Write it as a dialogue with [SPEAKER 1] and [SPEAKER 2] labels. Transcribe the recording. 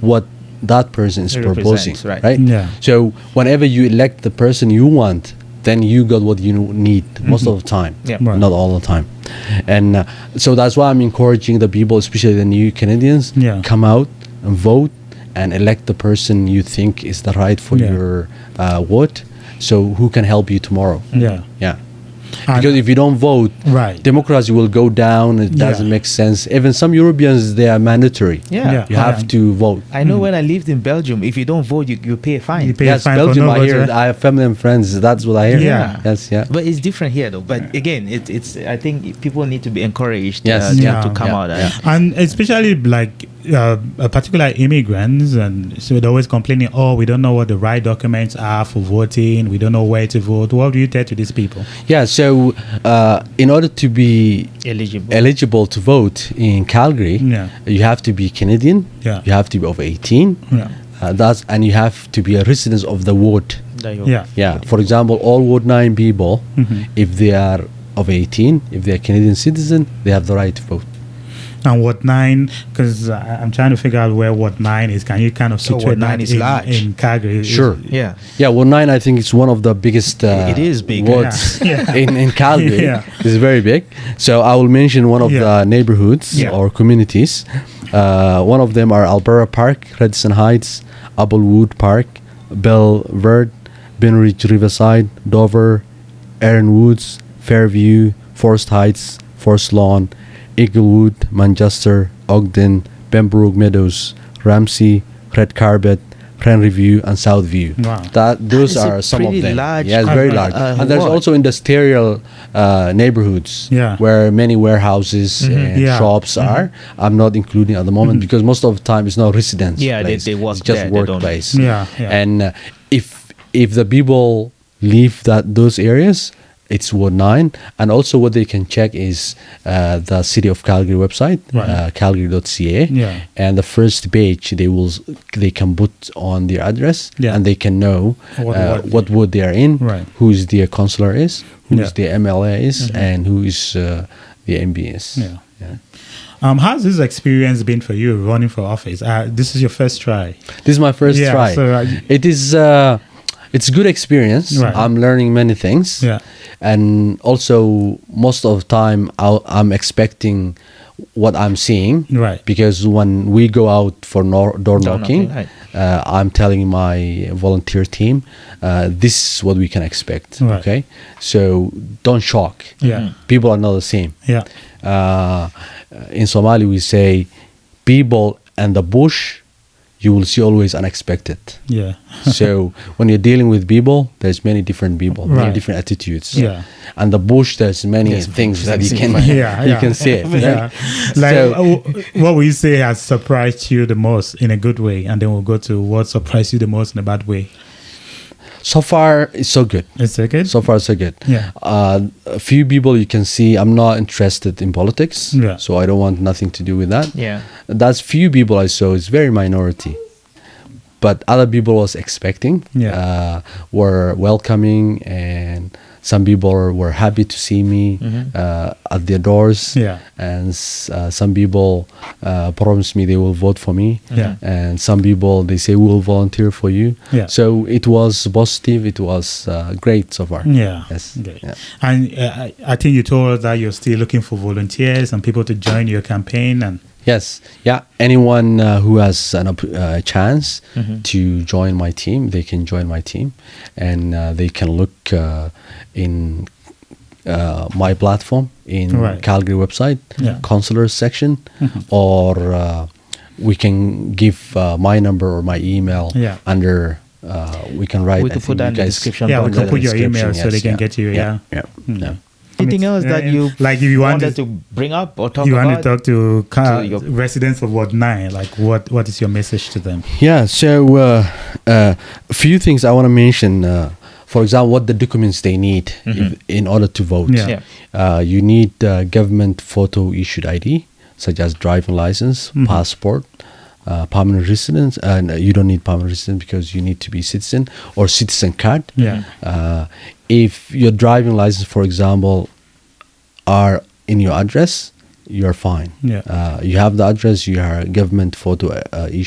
[SPEAKER 1] what that person is
[SPEAKER 2] It
[SPEAKER 1] proposing,
[SPEAKER 2] represents, right.
[SPEAKER 3] Yeah.
[SPEAKER 1] So whenever you elect the person you want, then you got what you need most of the time,
[SPEAKER 2] Mm-hmm. Yeah.
[SPEAKER 3] Right.
[SPEAKER 1] not all the time. And uh, so that's why I'm encouraging the people, especially the new Canadians,
[SPEAKER 3] Yeah.
[SPEAKER 1] come out and vote and elect the person you think is the right for
[SPEAKER 3] Yeah.
[SPEAKER 1] your uh, vote. So who can help you tomorrow?
[SPEAKER 3] Yeah.
[SPEAKER 1] Yeah.
[SPEAKER 3] And-
[SPEAKER 1] Because if you don't vote,
[SPEAKER 3] Right.
[SPEAKER 1] democracy will go down. It
[SPEAKER 3] Yeah.
[SPEAKER 1] doesn't make sense. Even some Europeans, they are mandatory.
[SPEAKER 2] Yeah.
[SPEAKER 3] Yeah.
[SPEAKER 1] You have
[SPEAKER 3] Yeah.
[SPEAKER 1] to vote.
[SPEAKER 2] I know when I lived in Belgium, if you don't vote, you, you pay a fine.
[SPEAKER 3] Hmm. You pay-
[SPEAKER 1] yes,
[SPEAKER 3] fine for
[SPEAKER 1] Belgium,
[SPEAKER 3] no
[SPEAKER 1] I hear.
[SPEAKER 3] voter.
[SPEAKER 1] I have family and friends. That's what I hear.
[SPEAKER 3] Yeah.
[SPEAKER 1] Yes, yeah.
[SPEAKER 2] But it's different here, though. But again, it, it's I think people need to be encouraged
[SPEAKER 1] Yes.
[SPEAKER 2] uh, to-
[SPEAKER 3] Yeah.
[SPEAKER 2] to come
[SPEAKER 1] Yeah.
[SPEAKER 2] out. uh,
[SPEAKER 1] Yeah.
[SPEAKER 3] and especially like uh, uh, particular immigrants and so they're always complaining oh we don't know what the right documents are for voting we don't know where to vote what do you tell to these people
[SPEAKER 1] Yeah, so uh, in order to be
[SPEAKER 2] Eligible.
[SPEAKER 1] eligible to vote in Calgary,
[SPEAKER 3] Yeah.
[SPEAKER 1] you have to be Canadian.
[SPEAKER 3] Yeah.
[SPEAKER 1] You have to be over 18.
[SPEAKER 3] Yeah.
[SPEAKER 1] Uh, that's and you have to be a resident of the ward.
[SPEAKER 2] that you-
[SPEAKER 3] yeah
[SPEAKER 1] Yeah. For example, all Ward 9 people,
[SPEAKER 3] Mm-hmm.
[SPEAKER 1] if they are of 18, if they are Canadian citizen, they have the right to vote.
[SPEAKER 3] and what nine because i'm trying to figure out where what nine is can you kind
[SPEAKER 1] Oh,
[SPEAKER 3] of
[SPEAKER 2] So
[SPEAKER 3] situate
[SPEAKER 2] Ward nine
[SPEAKER 3] that
[SPEAKER 2] is
[SPEAKER 3] in,
[SPEAKER 2] large.
[SPEAKER 3] in calgary Is-
[SPEAKER 1] Sure.
[SPEAKER 2] Yeah.
[SPEAKER 1] Yeah, Ward 9, I think it's one of the biggest uh,
[SPEAKER 2] It is big,
[SPEAKER 1] wards
[SPEAKER 3] yeah. Yeah.
[SPEAKER 1] In, in Calgary.
[SPEAKER 3] Yeah.
[SPEAKER 1] It's very big. So I will mention one of
[SPEAKER 3] Yeah.
[SPEAKER 1] the neighborhoods
[SPEAKER 3] Yeah.
[SPEAKER 1] or communities. Uh, one of them are Alberta Park, Redson Heights, Applewood Park, Belverde, Benridge Riverside, Dover, Erin Woods, Fairview, Forest Heights, Forest Lawn, Eaglewood, Manchester, Ogden, Pembroke Meadows, Ramsey, Red Carpet, Review, and Southview.
[SPEAKER 3] Wow.
[SPEAKER 1] That those
[SPEAKER 2] That is a
[SPEAKER 1] are some of
[SPEAKER 2] pretty
[SPEAKER 1] them.
[SPEAKER 2] large
[SPEAKER 1] yeah, it's very
[SPEAKER 2] uh,
[SPEAKER 1] large.
[SPEAKER 2] uh,
[SPEAKER 1] and there's
[SPEAKER 2] ward.
[SPEAKER 1] also industrial uh, neighborhoods
[SPEAKER 3] Yeah. Mm-hmm.
[SPEAKER 1] where many warehouses and
[SPEAKER 3] Yeah. Mm-hmm.
[SPEAKER 1] shops are. I'm not including at the moment because most of the time it's not residence.
[SPEAKER 2] Yeah, they-
[SPEAKER 1] place.
[SPEAKER 2] they work
[SPEAKER 1] It's just
[SPEAKER 2] there, they don't-
[SPEAKER 1] workplace.
[SPEAKER 3] Yeah, yeah.
[SPEAKER 1] And uh, if if the people leave that those areas. It's Ward 9. And also, what they can check is uh, the City of Calgary website,
[SPEAKER 3] Right.
[SPEAKER 1] uh, calgary.ca.
[SPEAKER 3] Yeah.
[SPEAKER 1] And the first page they will s- they can put on their address
[SPEAKER 3] Yeah.
[SPEAKER 1] and they can know
[SPEAKER 3] What
[SPEAKER 1] uh,
[SPEAKER 3] ward.
[SPEAKER 1] what ward they are in,
[SPEAKER 3] Right.
[SPEAKER 1] who is their counselor is, who is
[SPEAKER 3] Yeah. Mm-hmm.
[SPEAKER 1] their MLA is, and who is uh, the MB is.
[SPEAKER 3] Yeah. um how's this experience been for you running for office uh, this is your first try
[SPEAKER 1] This is my first
[SPEAKER 3] Yeah,
[SPEAKER 1] try.
[SPEAKER 3] so, uh,
[SPEAKER 1] it is uh, it's good experience.
[SPEAKER 3] Right.
[SPEAKER 1] I'm learning many things.
[SPEAKER 3] Yeah.
[SPEAKER 1] And also, most of the time, i I'm expecting what I'm seeing.
[SPEAKER 3] Right.
[SPEAKER 1] Because when we go out for nor- door
[SPEAKER 2] Door knocking,
[SPEAKER 1] knocking,
[SPEAKER 2] right.
[SPEAKER 1] uh, I'm telling my volunteer team, uh, this is what we can expect.
[SPEAKER 3] Right.
[SPEAKER 1] Okay. So don't shock.
[SPEAKER 3] Yeah. Mhm.
[SPEAKER 1] People are not the same
[SPEAKER 3] yeah
[SPEAKER 1] uh, in Somali we say people and the bush you will see always unexpected
[SPEAKER 3] yeah
[SPEAKER 1] so when you're dealing with people there's many different people many
[SPEAKER 3] Right.
[SPEAKER 1] different attitudes
[SPEAKER 3] Yeah.
[SPEAKER 1] and the bush there's many things that you can
[SPEAKER 3] yeah,
[SPEAKER 1] you
[SPEAKER 3] yeah.
[SPEAKER 1] can see it
[SPEAKER 3] yeah.
[SPEAKER 1] right?
[SPEAKER 3] Like,
[SPEAKER 1] So-
[SPEAKER 3] w- w- what would you say has surprised you the most in a good way? And then we'll go to what surprised you the most in a bad way.
[SPEAKER 1] so far it's so good
[SPEAKER 3] It's okay.
[SPEAKER 1] so far so good
[SPEAKER 3] Yeah.
[SPEAKER 1] uh, a few people you can see i'm not interested in politics
[SPEAKER 3] Yeah.
[SPEAKER 1] so i don't want nothing to do with that
[SPEAKER 2] Yeah.
[SPEAKER 1] that's few people i saw it's very minority but other people was expecting
[SPEAKER 3] Yeah.
[SPEAKER 1] uh, were welcoming and some people were happy to see me uh, at their doors
[SPEAKER 3] Mm-hmm. Yeah.
[SPEAKER 1] and s- uh, some people uh, promised me they will vote for me
[SPEAKER 3] Yeah.
[SPEAKER 1] and some people they say we will volunteer for you
[SPEAKER 3] Yeah.
[SPEAKER 1] so it was positive it was uh, great so far
[SPEAKER 3] yeah.
[SPEAKER 1] yes
[SPEAKER 3] Okay.
[SPEAKER 1] yeah.
[SPEAKER 3] And uh, I- I think you told us that you're still looking for volunteers and people to join your campaign. And
[SPEAKER 1] Yes, yeah. Anyone uh, who has an op- uh, chance
[SPEAKER 2] Mm-hmm.
[SPEAKER 1] to join my team, they can join my team, and uh, they can look uh, in uh, my platform in
[SPEAKER 3] Right.
[SPEAKER 1] Calgary website,
[SPEAKER 3] Yeah.
[SPEAKER 1] counselor section,
[SPEAKER 2] Mm-hmm.
[SPEAKER 1] or uh, we can give uh, my number or my email
[SPEAKER 3] Yeah.
[SPEAKER 1] under. Uh, we can write.
[SPEAKER 2] We
[SPEAKER 1] I
[SPEAKER 2] could put
[SPEAKER 1] think you
[SPEAKER 2] that in the
[SPEAKER 1] guys-
[SPEAKER 2] description Hmm.
[SPEAKER 3] yeah, we
[SPEAKER 2] box.
[SPEAKER 3] can put your email
[SPEAKER 1] description,
[SPEAKER 3] so they
[SPEAKER 1] yes,
[SPEAKER 3] can get you. Yeah.
[SPEAKER 1] yeah. yeah.
[SPEAKER 2] Anything else that
[SPEAKER 3] Yeah,
[SPEAKER 2] you
[SPEAKER 3] uh, like if you want
[SPEAKER 2] wanted
[SPEAKER 3] to-
[SPEAKER 2] to bring up or talk
[SPEAKER 3] you
[SPEAKER 2] about?
[SPEAKER 3] want to talk to, ca-
[SPEAKER 2] to your-
[SPEAKER 3] residents of Ward 9? Like, what, what is your message to them?
[SPEAKER 1] Yeah, so uh, uh, a few things I want to mention. Uh, for example, what the documents they need if, in order to vote.
[SPEAKER 3] Yeah.
[SPEAKER 1] Uh, you need uh, government photo issued ID, such as driving license,
[SPEAKER 3] Mm-hmm.
[SPEAKER 1] passport, uh, permanent residence. Uh, no, you don't need permanent residence because you need to be citizen or citizen card.
[SPEAKER 3] Yeah.
[SPEAKER 1] Uh, if your driving license, for example, are in your address, you're fine.
[SPEAKER 3] Yeah.
[SPEAKER 1] Uh, you have the address, you are government photo uh, issued.